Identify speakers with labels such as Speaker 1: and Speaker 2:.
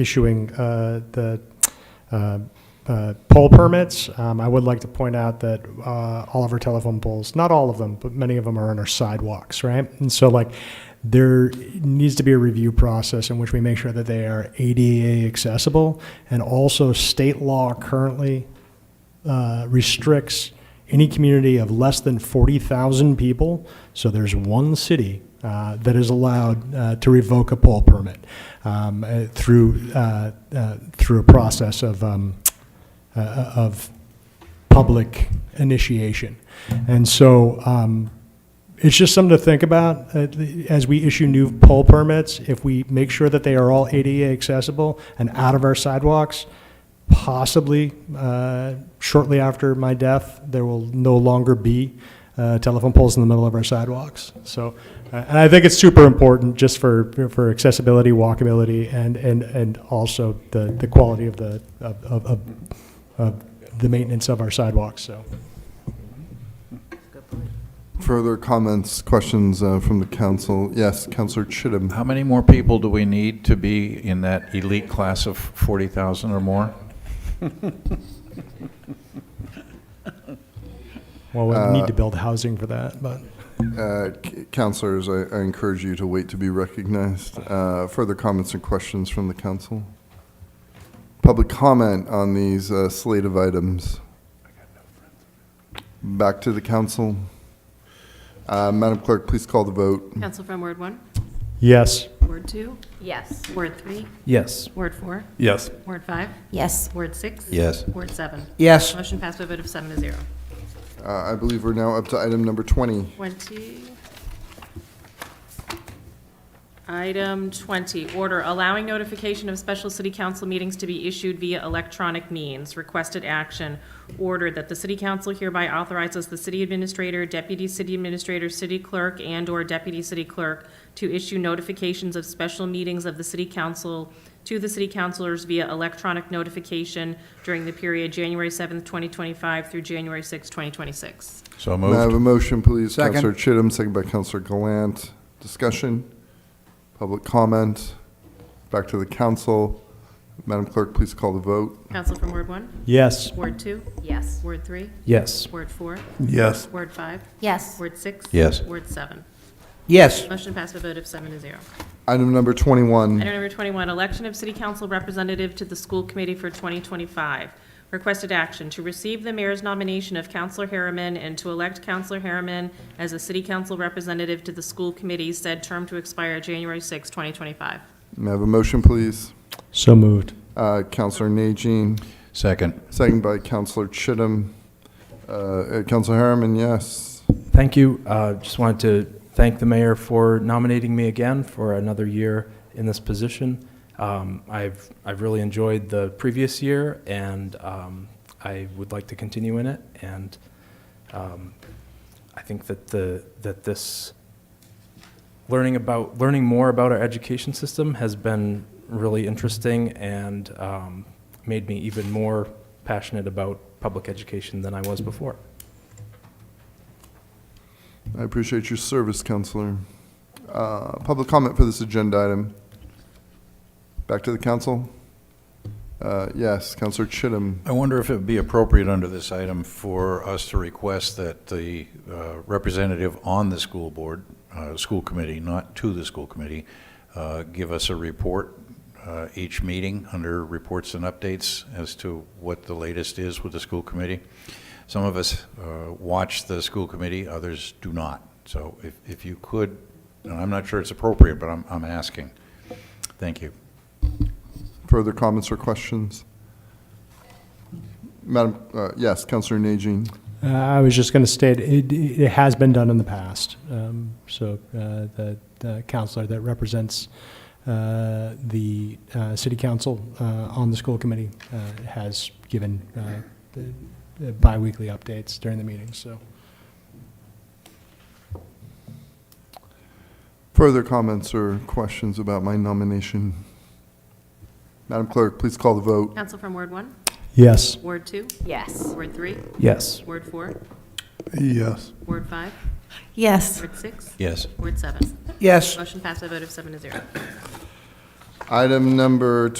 Speaker 1: issuing uh, the uh, uh, poll permits. Um, I would like to point out that uh, all of our telephone poles, not all of them, but many of them are on our sidewalks, right? And so like, there needs to be a review process in which we make sure that they are ADA accessible. And also, state law currently uh, restricts any community of less than 40,000 people. So there's one city uh, that is allowed uh, to revoke a poll permit um, uh, through, uh, uh, through a process of, um, uh, of public initiation. And so um, it's just something to think about uh, as we issue new poll permits. If we make sure that they are all ADA accessible and out of our sidewalks, possibly uh, shortly after my death, there will no longer be uh, telephone poles in the middle of our sidewalks. So, uh, and I think it's super important just for, for accessibility, walkability, and, and, and also the, the quality of the, of, of- of, of the maintenance of our sidewalks, so.
Speaker 2: Good point.
Speaker 3: Further comments, questions uh, from the council? Yes, Councillor Chittum.
Speaker 4: How many more people do we need to be in that elite class of 40,000 or more?
Speaker 1: Well, we need to build housing for that, but.
Speaker 3: Uh, c- Councillors, I I encourage you to wait to be recognized. Uh, Further comments and questions from the council? Public comment on these uh, slate of items? Back to the council. Uh, Madam Clerk, please call the vote.
Speaker 5: Council from Ward 1,
Speaker 1: Yes.
Speaker 5: Ward 2,
Speaker 2: Yes.
Speaker 5: Ward 3,
Speaker 6: Yes.
Speaker 5: Ward 4,
Speaker 6: Yes.
Speaker 5: Ward 5,
Speaker 2: Yes.
Speaker 5: Ward 6.
Speaker 4: Yes.
Speaker 5: Ward 7.
Speaker 6: Yes.
Speaker 5: Motion passed by a vote of seven to zero.
Speaker 3: Uh, I believe we're now up to item number 20.
Speaker 5: 20. Item 20, order allowing notification of special city council meetings to be issued via electronic means. Requested action, order that the city council hereby authorizes the city administrator, deputy city administrator, city clerk, and/or deputy city clerk to issue notifications of special meetings of the city council to the city councilors via electronic notification during the period January 7th, 2025 through January 6th, 2026.
Speaker 4: So
Speaker 3: May I have
Speaker 4: moved.
Speaker 3: a motion, please?
Speaker 6: Second.
Speaker 3: Councillor Chittum, second by Councillor Glant. Discussion? Public comment? Back to the council. Madam Clerk, please call the vote.
Speaker 5: Council from Ward 1?
Speaker 1: Yes.
Speaker 5: Ward 2?
Speaker 2: Yes.
Speaker 5: Word three,
Speaker 6: Yes.
Speaker 5: word four,
Speaker 3: Yes.
Speaker 5: word five,
Speaker 2: Yes.
Speaker 5: word six.
Speaker 4: Yes.
Speaker 5: Word seven.
Speaker 6: Yes.
Speaker 5: Motion passed by a vote of seven to zero.
Speaker 3: Item number 21.
Speaker 5: Item number 21, election of city council representative to the school committee for 2025. Requested action to receive the mayor's nomination of Counselor Harriman and to elect Counselor Harriman as a city council representative to the school committee, said term to expire January 6, 2025.
Speaker 3: May I have a motion, please?
Speaker 1: So moved.
Speaker 3: Uh, Councillor Najin,
Speaker 4: Second.
Speaker 3: second by Councillor Chittum. Uh, uh, Councillor Harriman, yes.
Speaker 7: Thank you. Uh, Just wanted to thank the mayor for nominating me again for another year in this position. Um, I've, I've really enjoyed the previous year, and um, I would like to continue in it. And um, I think that the, that this, learning about, learning more about our education system has been really interesting and um, made me even more passionate about public education than I was before.
Speaker 3: I appreciate your service, Councillor. Uh, Public comment for this agenda item. Back to the council. Uh, Yes, Councillor Chittum.
Speaker 4: I wonder if it would be appropriate under this item for us to request that the uh, representative on the school board, uh, school committee, not to the school committee, uh, give us a report uh, each meeting under reports and updates as to what the latest is with the school committee. Some of us uh, watch the school committee, others do not. So if if you could, and I'm not sure it's appropriate, but I'm I'm asking. Thank you.
Speaker 3: Further comments or questions? Madam, uh, yes, Councillor Najin.
Speaker 1: Uh, I was just going to state, it, it has been done in the past. Um, So uh, the the counselor that represents uh, the uh, city council uh, on the school committee uh, has given uh, the- the biweekly updates during the meetings, so.
Speaker 3: Further comments or questions about my nomination? Madam Clerk, please call the vote.
Speaker 5: Council from Ward 1,
Speaker 1: Yes.
Speaker 5: Ward 2,
Speaker 2: Yes.
Speaker 5: Ward 3,
Speaker 7: Yes.
Speaker 5: Ward 4,
Speaker 3: Yes.
Speaker 5: Ward 5,
Speaker 2: Yes.
Speaker 5: Ward 6,
Speaker 4: Yes.
Speaker 5: Ward 7.
Speaker 6: Yes.
Speaker 5: Motion passed by a vote of seven to zero.
Speaker 3: Item number